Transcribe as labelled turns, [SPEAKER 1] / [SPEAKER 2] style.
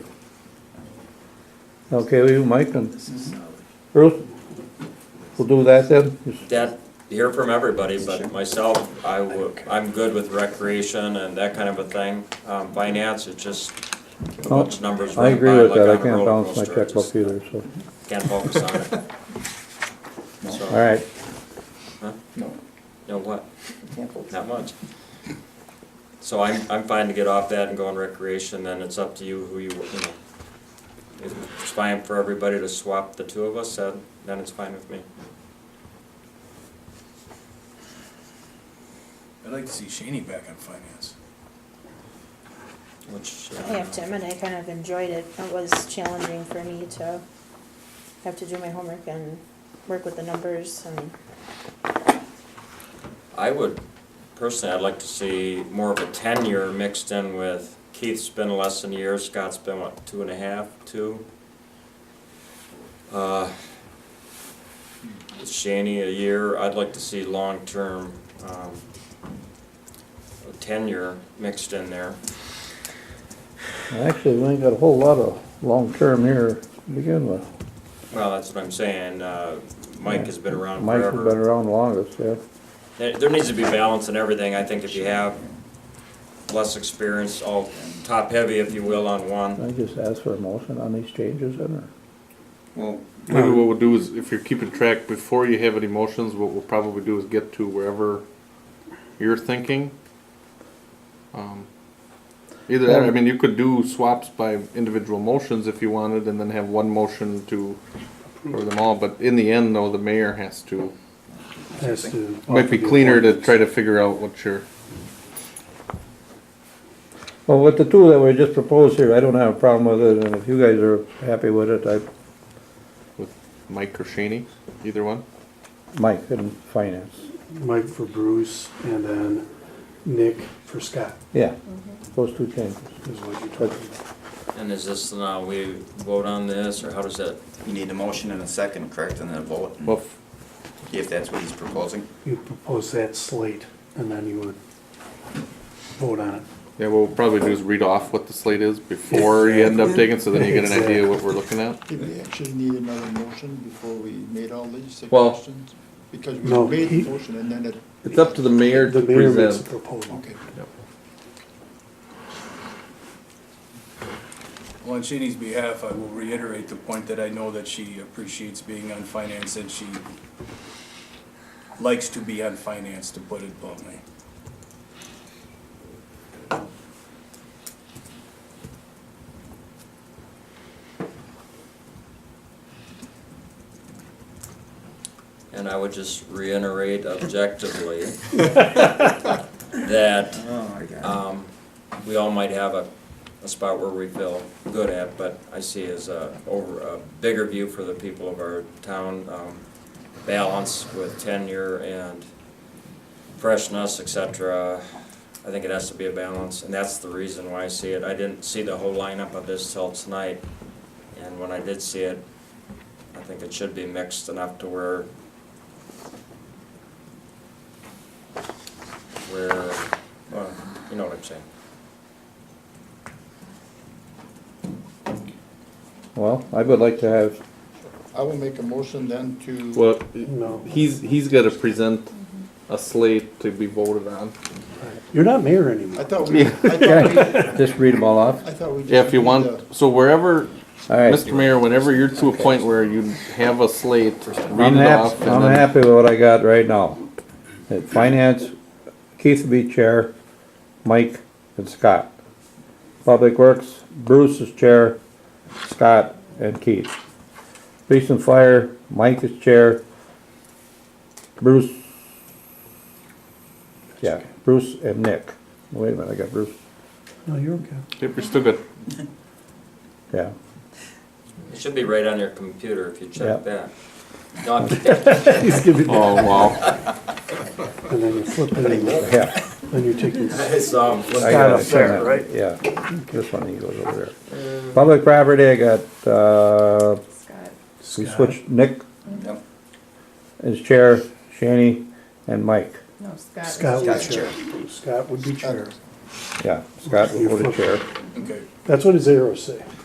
[SPEAKER 1] Okay, with you, Mike, and
[SPEAKER 2] This is, uh,
[SPEAKER 1] Bruce? We'll do that then? Just-
[SPEAKER 3] that, hear from everybody, but myself, I would, I'm good with recreation and that kind of a thing. Um, finance, it's just a bunch of numbers
[SPEAKER 1] I
[SPEAKER 3] run
[SPEAKER 1] agree
[SPEAKER 3] by
[SPEAKER 1] with
[SPEAKER 3] like
[SPEAKER 1] that, I
[SPEAKER 3] on a
[SPEAKER 1] can't
[SPEAKER 3] roller
[SPEAKER 1] balance my
[SPEAKER 3] coaster. I just
[SPEAKER 1] checkbook either, so,
[SPEAKER 3] Can't focus on it. So,
[SPEAKER 1] all right.
[SPEAKER 2] No,
[SPEAKER 3] You know what,
[SPEAKER 2] can't vote.
[SPEAKER 3] not much. So I'm, I'm fine to get off that and go on recreation, then it's up to you who you, you know. If it's fine for everybody to swap the two of us, then, then it's fine with me.
[SPEAKER 4] I'd like to see Shaney back on finance.
[SPEAKER 3] Which,
[SPEAKER 5] I
[SPEAKER 3] uh,
[SPEAKER 5] have Tim and I kind of enjoyed it. It was challenging for me to have to do my homework and work with the numbers and
[SPEAKER 3] I would, personally, I'd like to see more of a tenure mixed in with Keith's been less than a year, Scott's been, what, two and a half, two? Uh, Shaney a year, I'd like to see long-term, um, tenure mixed in there.
[SPEAKER 1] Actually, we ain't got a whole lot of long-term here to begin with.
[SPEAKER 3] Well, that's what I'm saying, uh, Mike has been around
[SPEAKER 1] Mike's
[SPEAKER 3] forever.
[SPEAKER 1] been around longest, yeah.
[SPEAKER 3] There, there needs to be balance in everything, I think if you have less experience, all top-heavy, if you will, on one,
[SPEAKER 1] I just asked for a motion on these changes, and not
[SPEAKER 2] Well,
[SPEAKER 6] Maybe what we'll do is, if you're keeping track, before you have any motions, what we'll probably do is get to wherever you're thinking. Um, Either that, I mean, you could do swaps by individual motions if you wanted, and then have one motion to cover them all, but in the end, though, the mayor has to.
[SPEAKER 7] Has to.
[SPEAKER 6] Might be cleaner to try to figure out what your,
[SPEAKER 1] Well, with the two that were just proposed here, I don't have a problem with it, and if you guys are happy with it, I,
[SPEAKER 6] with Mike or Shaney, either one.
[SPEAKER 1] Mike and finance.
[SPEAKER 7] Mike for Bruce and then Nick for Scott
[SPEAKER 1] Yeah, those two changes.
[SPEAKER 7] is what you're talking about.
[SPEAKER 3] And is this, now we vote on this, or how does that,
[SPEAKER 2] you need a motion and a second, correct, and then a vote,
[SPEAKER 6] Well, f-
[SPEAKER 2] if that's what he's proposing.
[SPEAKER 7] You propose that slate and then you would vote on it.
[SPEAKER 6] yeah, what we'll probably do is read off what the slate is before you end up taking, so then you get an idea what we're looking at.
[SPEAKER 8] Did we actually need another motion before we made all these
[SPEAKER 6] Well-
[SPEAKER 8] suggestions? Because
[SPEAKER 7] No,
[SPEAKER 8] we made
[SPEAKER 7] he-
[SPEAKER 8] the motion and then it,
[SPEAKER 6] It's up to the mayor
[SPEAKER 7] The
[SPEAKER 6] to
[SPEAKER 7] mayor makes a
[SPEAKER 6] present.
[SPEAKER 7] proposal.
[SPEAKER 8] okay.
[SPEAKER 4] Well, on Shaney's behalf, I will reiterate the point that I know that she appreciates being on finance and she likes to be on finance, to put it bluntly.
[SPEAKER 3] and I would just reiterate objectively that,
[SPEAKER 2] Oh, my God.
[SPEAKER 3] um, we all might have a, a spot where we feel good at, but I see as a, over, a bigger view for the people of our town, um, balance with tenure and freshness, et cetera. I think it has to be a balance, and that's the reason why I see it. I didn't see the whole lineup of this till tonight, and when I did see it, I think it should be mixed enough to where where, well, you know what I'm saying.
[SPEAKER 1] Well, I would like to have,
[SPEAKER 8] I will make a motion then to,
[SPEAKER 6] Well,
[SPEAKER 7] No.
[SPEAKER 6] he's, he's gotta present a slate to be voted on.
[SPEAKER 7] You're not mayor
[SPEAKER 8] I
[SPEAKER 7] anymore.
[SPEAKER 8] thought we, I thought
[SPEAKER 1] just read them all
[SPEAKER 8] we, I
[SPEAKER 1] off.
[SPEAKER 8] thought we just.
[SPEAKER 6] Yeah, if you
[SPEAKER 8] did the-
[SPEAKER 6] want, so wherever,
[SPEAKER 1] All right,
[SPEAKER 6] Mr. Mayor, whenever you're to a point where you have a slate, read
[SPEAKER 1] I'm
[SPEAKER 6] it off.
[SPEAKER 1] happy,
[SPEAKER 6] and
[SPEAKER 1] I'm
[SPEAKER 6] then-
[SPEAKER 1] happy with what I got right now. That Finance, Keith will be chair, Mike and Scott. Public Works, Bruce is chair, Scott and Keith. Police and Fire, Mike is chair, Bruce. Yeah, Bruce and Nick. Wait a minute, I got Bruce,
[SPEAKER 7] No, you're okay.
[SPEAKER 6] Yep, you're still good.
[SPEAKER 1] yeah.
[SPEAKER 3] It should be right on your computer if you check that. No, I'm
[SPEAKER 7] He's giving,
[SPEAKER 6] Oh, wow.
[SPEAKER 7] and then you flip it and
[SPEAKER 1] Yeah.
[SPEAKER 7] then you're taking.
[SPEAKER 3] It's, um,
[SPEAKER 1] I got it there, right? Yeah, this one, he goes over there. Public property, I got, uh,
[SPEAKER 5] Scott.
[SPEAKER 1] we switched Nick
[SPEAKER 2] Yep.
[SPEAKER 1] as chair, Shanny and Mike.
[SPEAKER 5] No, Scott.
[SPEAKER 7] Scott would
[SPEAKER 2] Scott's
[SPEAKER 7] chair. Scott would be chair.
[SPEAKER 1] Yeah, Scott will go to chair.
[SPEAKER 4] Okay.
[SPEAKER 7] That's what his arrows say.